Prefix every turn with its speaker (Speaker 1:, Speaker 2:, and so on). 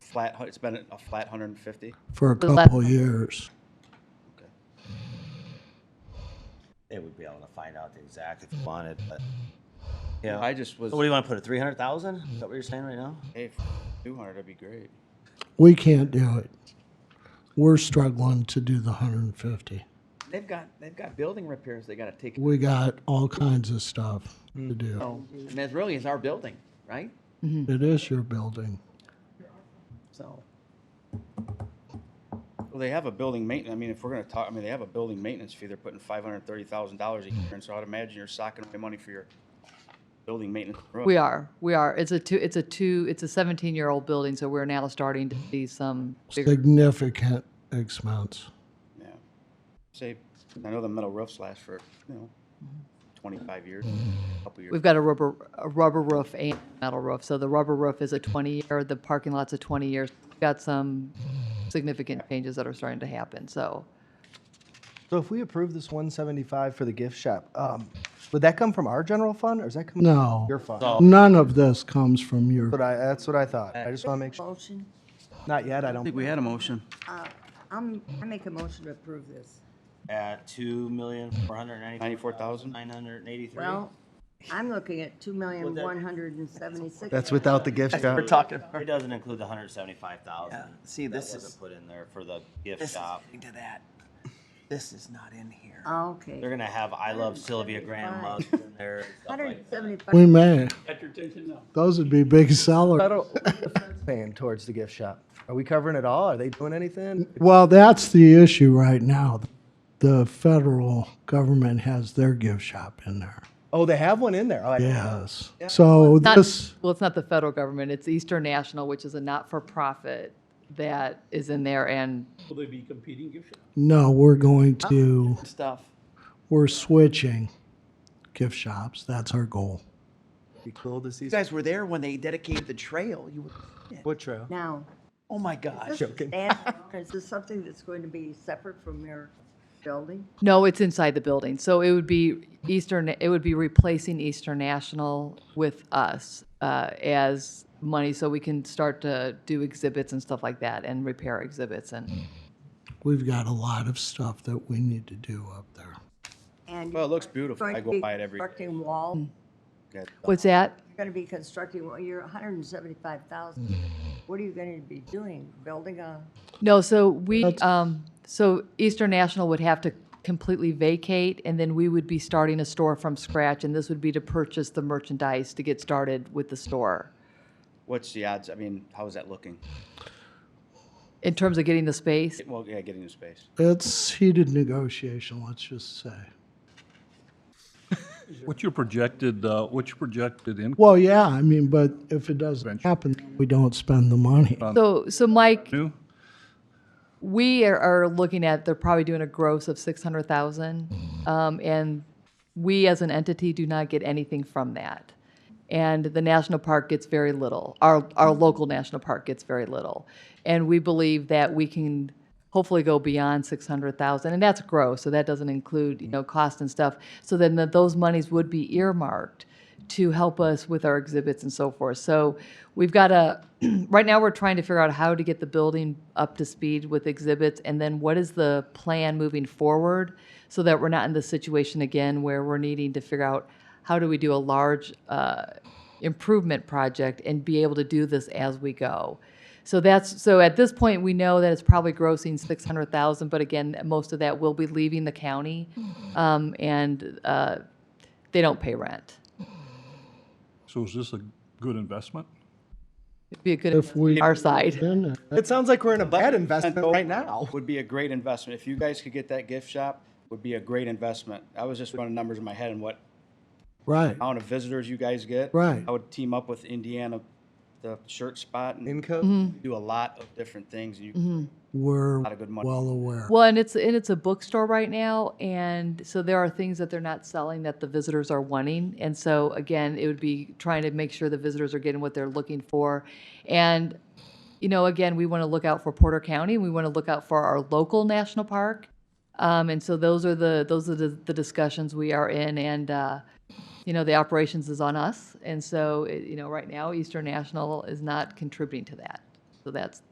Speaker 1: flat, hu- it's been a flat 150?
Speaker 2: for a
Speaker 3: We left-
Speaker 2: couple years.
Speaker 1: Okay.
Speaker 4: They would be able to find out the exact
Speaker 5: Mm-hmm.
Speaker 4: if you wanted, but. Yeah.
Speaker 1: I just was,
Speaker 4: So what do you want to put it? Three hundred thousand? Is that what you're saying right now?
Speaker 1: hey, f- 200, that'd be great.
Speaker 2: We can't do it. We're struggling to do the hundred and fifty.
Speaker 1: They've got, they've got building repairs they gotta take,
Speaker 2: We got all kinds of stuff to
Speaker 6: Mm. Oh.
Speaker 2: do.
Speaker 1: and that really is our building, right?
Speaker 2: It is your building.
Speaker 1: So. Well, they have a building maintenance, I mean, if we're gonna talk, I mean, they have a building maintenance fee, they're putting five hundred and thirty thousand dollars a year, and so I'd imagine you're socking away money for your building maintenance.
Speaker 3: We are, we are. It's a two, it's a two, it's a 17-year-old building, so we're now starting to see some bigger.
Speaker 2: Significant expense.
Speaker 1: Yeah. Say, I know the metal roofs last for, you know, twenty-five years, a couple years.
Speaker 3: We've got a rubber, a rubber roof and metal roof. So the rubber roof is a 20-year, the parking lot's a 20 years. We've Got some significant changes that are starting to happen, so.
Speaker 6: So if we approve this one seventy-five for the gift shop, um, would that come from our general fund or is that coming?
Speaker 2: No.
Speaker 6: Your fund?
Speaker 4: So-
Speaker 2: None of this comes from your,
Speaker 6: But I, that's what I thought. I just want to make sure.
Speaker 7: Motion,
Speaker 6: Not yet, I
Speaker 1: I
Speaker 6: don't.
Speaker 1: think we had a motion.
Speaker 7: I'm, I make a motion to approve this.
Speaker 4: At two million four hundred ninety.
Speaker 1: Ninety-four thousand?
Speaker 4: Nine hundred and eighty-three.
Speaker 7: Well, I'm looking at two million, one hundred and seventy-six.
Speaker 8: That's without the gift shop.
Speaker 4: talking. It doesn't include the hundred seventy-five thousand.
Speaker 5: Yeah, see, this
Speaker 4: That
Speaker 5: is-
Speaker 4: wasn't put in there for the gift
Speaker 5: This is
Speaker 4: shop.
Speaker 5: getting to that. This is not in here.
Speaker 4: They're
Speaker 7: Okay.
Speaker 4: gonna have I love Sylvia Graham mugs in there. and stuff
Speaker 7: Hundred and
Speaker 4: like that.
Speaker 2: we
Speaker 7: seventy-five,
Speaker 2: may. Those would be big sellers.
Speaker 6: Federal paying towards the gift shop. Are we covering it all? Are they doing anything?
Speaker 2: Well, that's the issue right now. The federal government has their gift shop in there.
Speaker 6: Oh, they have one in there. Oh, I didn't know that.
Speaker 2: Yes. So
Speaker 3: Not,
Speaker 2: this,
Speaker 3: well, it's not the federal government, it's Eastern National, which is a not-for-profit that is in there and
Speaker 9: Will they be competing gift shops?
Speaker 2: no, we're going to,
Speaker 3: stuff.
Speaker 2: we're switching gift shops. That's our goal.
Speaker 6: Be cool to see.
Speaker 5: You guys were there when they dedicated the trail. You, were-
Speaker 6: What trail?
Speaker 7: now.
Speaker 5: oh my gosh.
Speaker 6: Joking.
Speaker 7: that- Is this something that's going to be separate from your building?
Speaker 3: No, it's inside the building. So it would be Eastern, it would be replacing Eastern National with us uh, as money so we can start to do exhibits and stuff like that and repair exhibits and
Speaker 2: We've got a lot of stuff that we need to do up there.
Speaker 7: And
Speaker 1: Well, it
Speaker 7: you're
Speaker 1: looks beautiful.
Speaker 7: going
Speaker 1: I
Speaker 7: to
Speaker 1: go
Speaker 7: be
Speaker 1: by it every day.
Speaker 7: constructing wall,
Speaker 1: Got-
Speaker 3: what's that?
Speaker 7: you're gonna be constructing, well, you're hundred and seventy-five thousand.
Speaker 6: Hmm.
Speaker 7: What are you gonna be doing? Building a,
Speaker 3: No, so we, um, so Eastern National would have to completely vacate and then we would be starting a store from scratch and this would be to purchase the merchandise to get started with the store.
Speaker 1: What's the odds? I mean, how is that looking?
Speaker 3: In terms of getting the space,
Speaker 1: Well, yeah, getting the space.
Speaker 2: It's heated negotiation, let's just say.
Speaker 9: What's your projected, uh, what's your projected income?
Speaker 2: Well, yeah, I mean, but if it doesn't happen, we don't spend the money.
Speaker 3: so, so Mike,
Speaker 9: New?
Speaker 3: We are, are looking at, they're probably doing a gross of six hundred thousand. Um, and we as an entity do not get anything from that. And the national park gets very little. Our, our local national park gets very little. And we believe that we can hopefully go beyond six hundred thousand, and that's gross, so that doesn't include, you know, cost and stuff. So then that those monies would be earmarked to help us with our exhibits and so forth. So we've got a, right now, we're trying to figure out how to get the building up to speed with exhibits, and then what is the plan moving forward so that we're not in the situation again where we're needing to figure out how do we do a large uh, improvement project and be able to do this as we go. So that's, so at this point, we know that it's probably grossing six hundred thousand, but again, most of that will be leaving the county. Um, and, uh, they don't pay rent.
Speaker 9: So is this a good investment?
Speaker 3: It'd be a good,
Speaker 2: If we-
Speaker 3: investment on our side.
Speaker 2: Then, uh,
Speaker 6: It sounds like we're in a bad investment right now.
Speaker 1: Would be a great investment. If you guys could get that gift shop, would be a great investment. I was just running numbers in my head and what
Speaker 2: Right,
Speaker 1: amount of visitors you guys get.
Speaker 2: Right.
Speaker 1: I would team up with Indiana, the shirt spot and
Speaker 6: Income.
Speaker 1: do a lot of different things.
Speaker 6: Mm-hmm.
Speaker 1: You
Speaker 2: we're
Speaker 1: lot of good money.
Speaker 2: well aware.
Speaker 3: Well, and it's, and it's a bookstore right now, and so there are things that they're not selling that the visitors are wanting. And so again, it would be trying to make sure the visitors are getting what they're looking for. And, you know, again, we want to look out for Porter County, we want to look out for our local national park. Um, and so those are the, those are the, the discussions we are in, and, uh, you know, the operations is on us. And so, it- you know, right now, Eastern National is not contributing to that. So that's,